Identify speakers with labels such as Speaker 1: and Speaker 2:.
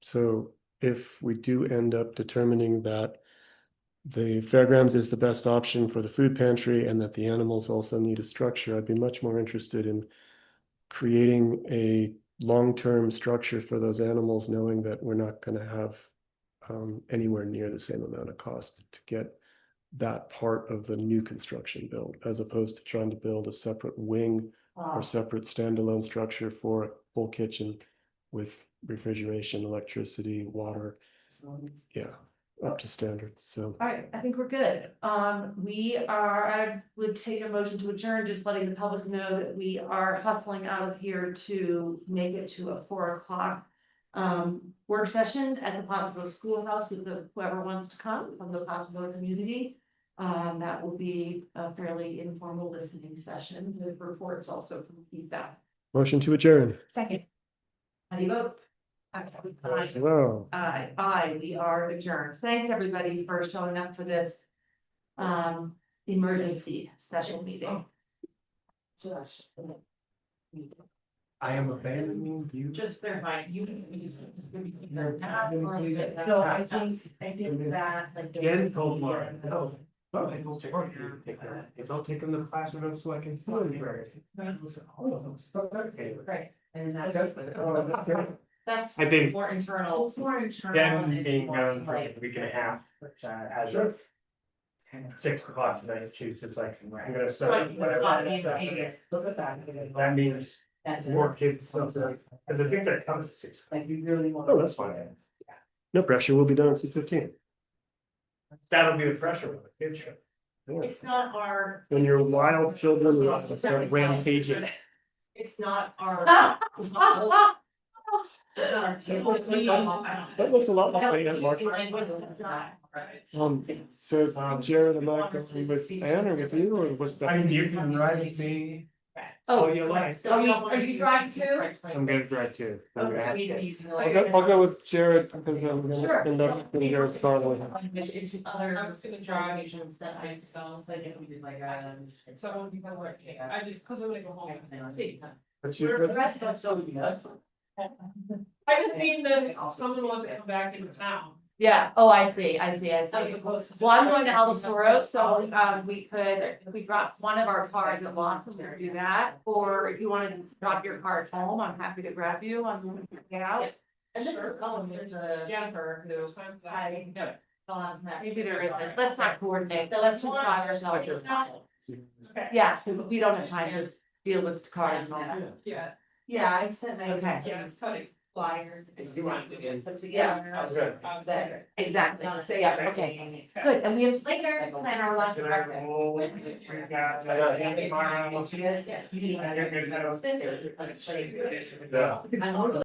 Speaker 1: So if we do end up determining that the fairgrounds is the best option for the food pantry and that the animals also need a structure, I'd be much more interested in creating a long-term structure for those animals, knowing that we're not gonna have um, anywhere near the same amount of cost to get that part of the new construction built, as opposed to trying to build a separate wing or
Speaker 2: Uh,
Speaker 1: separate standalone structure for a full kitchen with refrigeration, electricity, water,
Speaker 2: facilities.
Speaker 1: yeah, up to standard, so.
Speaker 2: All right, I think we're good. Um, we are, I would take a motion to adjourn, just letting the public know that we are hustling out of here to make it to a four o'clock. Um, work session at the Pottsville Schoolhouse with the- whoever wants to come from the Pottsville community. Um, that will be a fairly informal listening session with reports also from the staff.
Speaker 1: Motion to adjourn.
Speaker 2: Second. How do you vote?
Speaker 1: As well.
Speaker 2: Aye, aye, we are adjourned. Thanks, everybody, for showing up for this. Um, emergency special meeting.
Speaker 3: I am abandoning you.
Speaker 2: Just verifying, you. No,
Speaker 3: No,
Speaker 2: I think, I think that like.
Speaker 3: Jen told Laura, no. But I will take her, take her, it's all taken the classroom so I can still remember it. Anyway.
Speaker 2: Right, and
Speaker 3: That's
Speaker 2: that's,
Speaker 3: it. Oh,
Speaker 2: that's
Speaker 3: I think-
Speaker 2: more internal. It's more internal.
Speaker 3: Then
Speaker 2: and
Speaker 3: being
Speaker 2: more
Speaker 3: gone for
Speaker 2: like-
Speaker 3: a week and a half, which uh, as of six o'clock tonight, too, so it's like, I'm gonna
Speaker 2: So I
Speaker 3: start
Speaker 2: think the
Speaker 3: whatever.
Speaker 2: bottom
Speaker 3: it's up
Speaker 2: is-
Speaker 3: against. That means
Speaker 2: that's-
Speaker 3: more kids, something, cause I think that comes at six.
Speaker 2: Like you really want.
Speaker 1: Oh, that's fine. No pressure, we'll be done at six fifteen.
Speaker 3: That'll be the pressure with the kids.
Speaker 2: It's not our.
Speaker 1: When your wild children
Speaker 2: It's
Speaker 1: want to start rampaging.
Speaker 2: It's not our. It's not our
Speaker 1: That looks like- That looks a lot like my aunt Martha. Um, so Jared, am I going with Anne or with you or what's
Speaker 3: I
Speaker 1: that?
Speaker 3: mean, you can ride me.
Speaker 2: Oh,
Speaker 3: all you like.
Speaker 2: So are you, are you driving too?
Speaker 3: I'm gonna drive too. I'm gonna have to.
Speaker 1: I'll go, I'll go with Jared because I'm gonna end up in Jared's car with him.
Speaker 2: Other.
Speaker 4: I was gonna drive.
Speaker 2: Nations that I saw, like if we did like, um.
Speaker 4: So people were, I just, cause I'm gonna go home.
Speaker 1: That's
Speaker 2: The
Speaker 1: you.
Speaker 2: rest of us don't do that.
Speaker 4: I just mean that someone wants to come back into town.
Speaker 2: Yeah, oh, I see, I see, I
Speaker 4: as
Speaker 2: see.
Speaker 4: opposed to-
Speaker 2: Well, I'm going to El Tesoro, so um we could, we dropped one of our cars at Lawson, we could do that. Or if you wanted to drop your car at home, I'm happy to grab you, I'm gonna get out.
Speaker 4: And this is
Speaker 2: Colin,
Speaker 4: Colin, there's a Jennifer who's time for that.
Speaker 2: Hi.
Speaker 4: No.
Speaker 2: Um, maybe there is, like, let's not coordinate, but let's just drive ourselves as well.
Speaker 4: Okay.
Speaker 2: Yeah, 'cause we don't have time to deal with cars and all that.
Speaker 4: Yeah,
Speaker 2: Yeah, I sent my.
Speaker 4: yeah, it's cutting flyer. It's the one we did.
Speaker 2: Yeah,
Speaker 3: Sounds good.
Speaker 4: Um,
Speaker 2: But- exactly, so yeah, okay,
Speaker 4: Yeah.
Speaker 2: good, and we have later plan our lunch and
Speaker 3: Can I
Speaker 2: breakfast.
Speaker 3: roll? We got, I got Andy Mara.
Speaker 2: Yes, yes.
Speaker 3: I got good
Speaker 2: This-
Speaker 3: notes. Yeah.
Speaker 2: I'm also